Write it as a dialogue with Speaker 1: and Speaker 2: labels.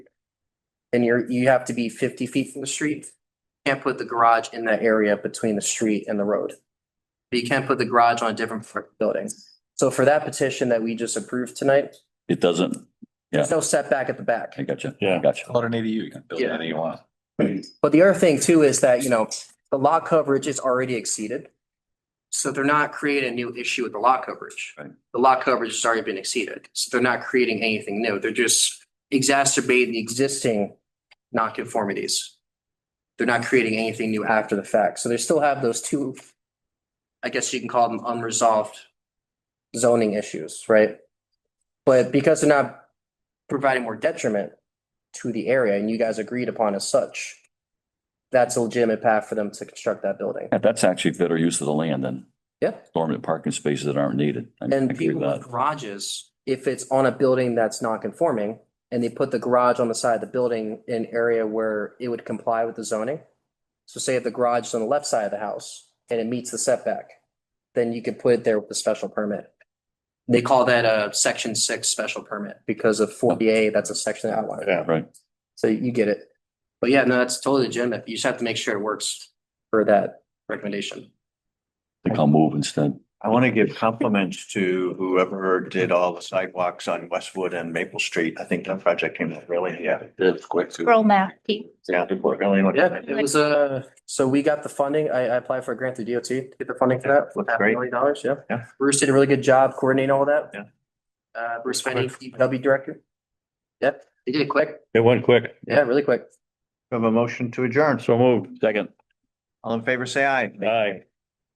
Speaker 1: And you're, you have to be fifty feet from the street. Can't put the garage in that area between the street and the road. But you can put the garage on a different fr- building. So for that petition that we just approved tonight,
Speaker 2: It doesn't,
Speaker 1: there's no setback at the back.
Speaker 2: I got you.
Speaker 3: Yeah.
Speaker 2: Got you.
Speaker 4: Call it an ADU, you can build
Speaker 1: Yeah.
Speaker 4: anything you want.
Speaker 1: But the other thing too is that, you know, the lot coverage is already exceeded. So they're not creating a new issue with the lot coverage.
Speaker 2: Right.
Speaker 1: The lot coverage has already been exceeded, so they're not creating anything new. They're just exacerbating the existing nonconformities. They're not creating anything new after the fact, so they still have those two, I guess you can call them unresolved zoning issues, right? But because they're not providing more detriment to the area and you guys agreed upon as such, that's a legitimate path for them to construct that building.
Speaker 2: Yeah, that's actually better use of the land than
Speaker 1: Yeah.
Speaker 2: dormant parking spaces that aren't needed. I
Speaker 1: And
Speaker 2: agree
Speaker 1: people
Speaker 2: with
Speaker 1: with
Speaker 2: that.
Speaker 1: garages, if it's on a building that's not conforming and they put the garage on the side of the building in an area where it would comply with the zoning. So say if the garage is on the left side of the house and it meets the setback, then you could put it there with a special permit. They call that a section six special permit because of forty A, that's a section outline.
Speaker 3: Yeah.
Speaker 2: Right.
Speaker 1: So you get it. But yeah, no, that's totally legitimate. You just have to make sure it works for that recommendation.
Speaker 2: Think I'll move instead.
Speaker 3: I want to give compliments to whoever did all the sidewalks on Westwood and Maple Street. I think that project came out really, yeah. It's quick.
Speaker 5: Girl math team.
Speaker 3: Yeah, it worked really. well.
Speaker 1: Yeah, it was uh so we got the funding. I, I applied for a grant through DOT to get the funding for that.
Speaker 3: Looks
Speaker 1: half a
Speaker 3: great.
Speaker 1: Million dollars, yeah.
Speaker 3: Yeah.
Speaker 1: Bruce did a really good job coordinating all that.
Speaker 3: Yeah.
Speaker 1: Uh, Bruce Fenny, DPW director. Yep, he did it quick.
Speaker 6: It went quick.
Speaker 1: Yeah, really quick.
Speaker 3: Have a motion to adjourn.
Speaker 6: So moved.
Speaker 2: Second.
Speaker 3: All in favor, say aye.
Speaker 6: Aye.